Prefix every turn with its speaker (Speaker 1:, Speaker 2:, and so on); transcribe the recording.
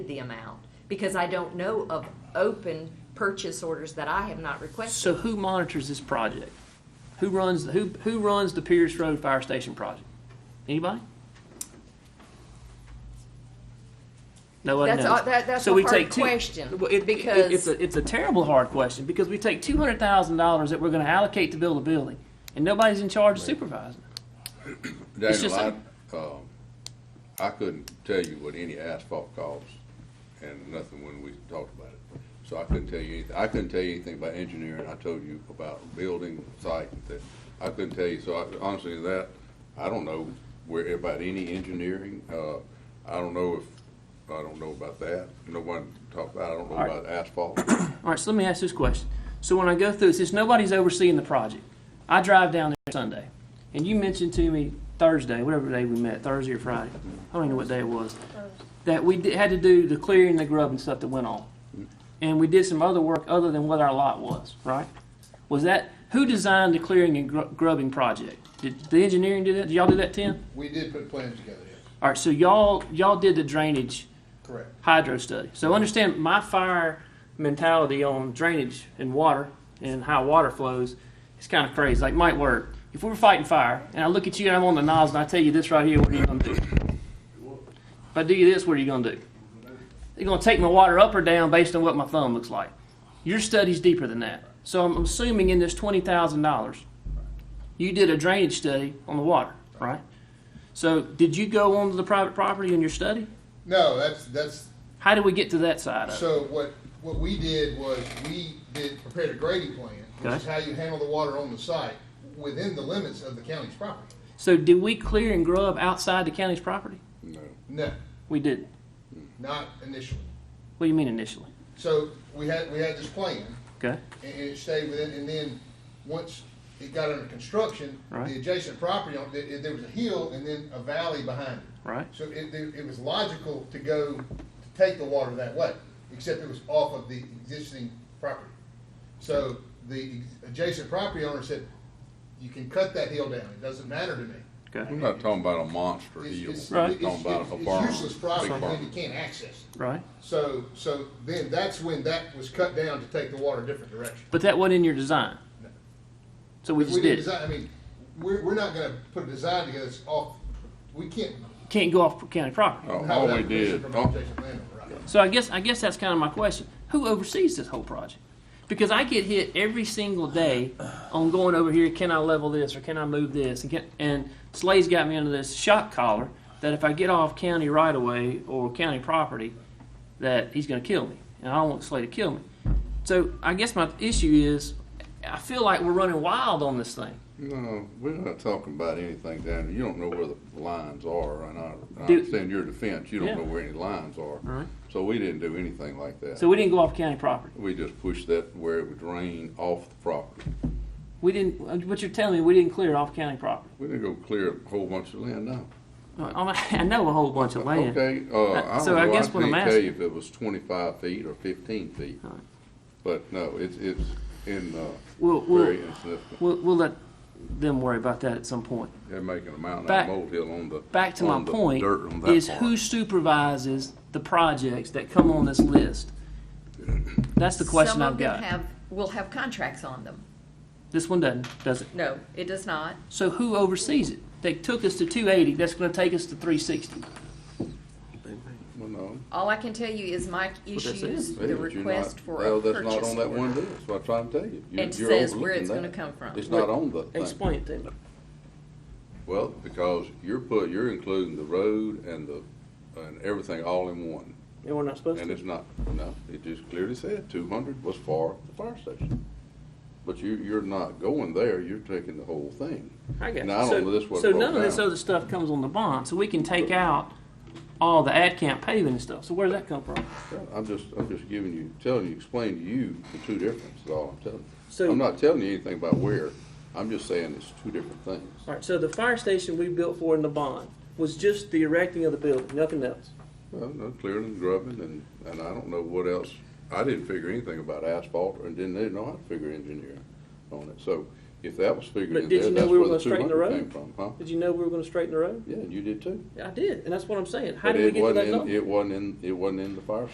Speaker 1: the amount, because I don't know of open purchase orders that I have not requested.
Speaker 2: So who monitors this project? Who runs, who, who runs the Pierce Road Fire Station project? Anybody? Nobody
Speaker 1: That's
Speaker 2: knows.
Speaker 1: a- that- that's
Speaker 2: So
Speaker 1: a
Speaker 2: we
Speaker 1: hard
Speaker 2: take two-
Speaker 1: question,
Speaker 2: Well, it- it-
Speaker 1: because-
Speaker 2: It's a, it's a terrible hard question, because we take two hundred thousand dollars that we're gonna allocate to build a building, and nobody's in charge of supervising. it. It's
Speaker 3: Daniel,
Speaker 2: just
Speaker 3: I, um, I couldn't tell you what any asphalt costs and nothing when we talked about it. So I couldn't tell you anything. I couldn't tell you anything about engineering. I told you about building site and that. I couldn't tell you, so I, honestly, that, I don't know where, about any engineering. Uh, I don't know if, I don't know about that. No one talked about, I don't know
Speaker 2: All right.
Speaker 3: about asphalt.
Speaker 2: All right, so let me ask this question. So when I go through, since nobody's overseeing the project, I drive down there Sunday, and you mentioned to me Thursday, whatever day we met, Thursday or Friday, I don't even know what day it was, that we did, had to do the clearing, the grub, and stuff that went on, and we did some other work other than what our lot was, right? Was that who designed the clearing and gr- grubbing project? Did the engineering do that? Did y'all do that, Tim?
Speaker 4: We did put plans together, yes,
Speaker 2: All right, so y'all y'all did the drainage
Speaker 4: correct.
Speaker 2: hydro study. So understand my fire mentality on drainage and water and how water flows is kind of crazy. Like Mike Word, if we were fighting fire and I look at you and I'm on the nozzle and I tell you this right here, what are you gonna do? If I do you this, what are you gonna do? You're gonna take my water up or down based on what my thumb looks like. Your study's deeper than that. So I'm assuming in this twenty thousand dollars, you did a drainage study on the water, right? So did you go onto the private property in your study?
Speaker 4: No, that's, that's,
Speaker 2: How did we get to that side of it?
Speaker 4: so what, what we did was, we did, prepared a grading plan, which is
Speaker 2: Okay.
Speaker 4: how you handle the water on the site, within the limits of the county's property.
Speaker 2: So did we clear and grub outside the county's property?
Speaker 3: No.
Speaker 4: No,
Speaker 2: We didn't.
Speaker 4: not initially.
Speaker 2: What do you mean initially?
Speaker 4: So, we had, we had this plan,
Speaker 2: Okay.
Speaker 4: and, and it stayed within, and then, once it got under construction,
Speaker 2: Right.
Speaker 4: the adjacent property, on- there, there was a hill and then a valley behind it.
Speaker 2: Right.
Speaker 4: So it, it it was logical to go, to take the water that way, except it was off of the existing property. So the adjacent property owner said, you can cut that hill down, it doesn't matter to me.
Speaker 2: Okay.
Speaker 3: I'm not talking about a monster
Speaker 4: It's-
Speaker 3: hill.
Speaker 4: it's-
Speaker 3: We're
Speaker 2: Right.
Speaker 4: it's-
Speaker 3: Talking about a
Speaker 4: it's
Speaker 3: barn.
Speaker 4: useless
Speaker 3: big
Speaker 4: property,
Speaker 3: barn.
Speaker 4: then you can't access it.
Speaker 2: Right.
Speaker 4: So, so then that's when that was cut down to take the water a different direction.
Speaker 2: But that wasn't in your design. So we
Speaker 4: If
Speaker 2: just
Speaker 4: didn't
Speaker 2: did. it.
Speaker 4: design- I mean, we're, we're not gonna put a design together that's off, we can't.
Speaker 2: Can't go off county property.
Speaker 3: Oh,
Speaker 4: have
Speaker 3: All
Speaker 4: that
Speaker 3: we did,
Speaker 4: permission From
Speaker 3: oh,
Speaker 4: an adjacent landowner, right?
Speaker 2: So I guess I guess that's kind of my question. Who oversees this whole project? Because I get hit every single day on going over here. Can I level this or can I move this? And, can, and Slade's got me under this shock collar that if I get off county right of way or county property, that he's going to kill me, and I don't want Slade to kill me. So I guess my issue is, I feel like we're running wild on this thing.
Speaker 3: No, we're not talking about anything down there. You don't know where the lines are, and I, I
Speaker 2: Do-
Speaker 3: understand your defense, you
Speaker 2: Yeah.
Speaker 3: don't know where any lines
Speaker 2: Right.
Speaker 3: are. So we didn't do anything like
Speaker 2: So
Speaker 3: that.
Speaker 2: we didn't go off county property.
Speaker 3: We just pushed that where it would drain off the property.
Speaker 2: We didn't. What you're telling me, we didn't clear off county property.
Speaker 3: We didn't go clear a whole bunch of land, no.
Speaker 2: I know a whole bunch of land.
Speaker 3: Okay, uh,
Speaker 2: Uh,
Speaker 3: I
Speaker 2: so
Speaker 3: don't
Speaker 2: Oh, I
Speaker 3: know, I
Speaker 2: guess what I'm
Speaker 3: can't tell
Speaker 2: asking-
Speaker 3: you if it was twenty-five feet or fifteen feet.
Speaker 2: All right.
Speaker 3: But no, it's, it's in, uh,
Speaker 2: Well, well-
Speaker 3: very insignificant.
Speaker 2: We'll, we'll let them worry about that at some point.
Speaker 3: They're making a mountain out
Speaker 2: Back-
Speaker 3: of molehill on the.
Speaker 2: Back to my
Speaker 3: on the
Speaker 2: point
Speaker 3: dirt on that
Speaker 2: is
Speaker 3: part.
Speaker 2: who supervises the projects that come on this list? That's the question
Speaker 1: Some
Speaker 2: I've
Speaker 1: of them
Speaker 2: got.
Speaker 1: have, will have contracts on them.
Speaker 2: this one doesn't, does it?
Speaker 1: No, it does not.
Speaker 2: So who oversees it? They took us to 280. That's going to take us to 360.
Speaker 3: Well, no.
Speaker 1: All I can tell you is Mike
Speaker 2: that's it.
Speaker 1: issues
Speaker 3: Yeah,
Speaker 1: the
Speaker 3: but you're
Speaker 1: request
Speaker 3: not-
Speaker 1: for
Speaker 3: well,
Speaker 1: a
Speaker 3: that's not
Speaker 1: purchase
Speaker 3: on that one
Speaker 1: order.
Speaker 3: list, what I'm trying to tell you. You-
Speaker 1: It
Speaker 3: you're
Speaker 1: says where
Speaker 3: overlooking
Speaker 1: it's gonna
Speaker 3: that.
Speaker 1: come from.
Speaker 3: It's not on the thing.
Speaker 2: Explain it to me.
Speaker 3: Well, because you're put, you're including the road and the, and everything all in one.
Speaker 2: And we're not supposed
Speaker 3: And
Speaker 2: to.
Speaker 3: it's not, no, it just clearly said two hundred was for the fire station. But you, you're not going there, you're taking the whole thing.
Speaker 2: I got
Speaker 3: Now, I
Speaker 2: you.
Speaker 3: don't
Speaker 2: So,
Speaker 3: know this was
Speaker 2: so
Speaker 3: broke
Speaker 2: none of this
Speaker 3: down.
Speaker 2: other stuff comes on the bond. So we can take out all the ad camp paving and stuff. So where does that come from?
Speaker 3: I'm just, I'm just giving you, telling you, explaining to you the two differences, all I'm telling you.
Speaker 2: So-
Speaker 3: I'm not telling you anything about where, I'm just saying it's two different things.
Speaker 2: All right, so the fire station we built for in the bond was just the erecting of the building, nothing else.
Speaker 3: Well, no, clearing and grubbing and, and I don't know what else. I didn't figure anything about asphalt and didn't even know how to figure engineering on it. So If that was figured
Speaker 2: But
Speaker 3: in
Speaker 2: did
Speaker 3: there,
Speaker 2: you know
Speaker 3: that's
Speaker 2: we were
Speaker 3: where the
Speaker 2: gonna
Speaker 3: two
Speaker 2: straighten the
Speaker 3: hundred
Speaker 2: road?
Speaker 3: came from, huh?
Speaker 2: Did you know we were going to straighten the road?
Speaker 3: Yeah, you did too.
Speaker 2: I did, and that's what I'm saying. How
Speaker 3: But
Speaker 2: did we
Speaker 3: it
Speaker 2: get to
Speaker 3: wasn't
Speaker 2: that
Speaker 3: in,
Speaker 2: number?
Speaker 3: it wasn't in, it wasn't in the fire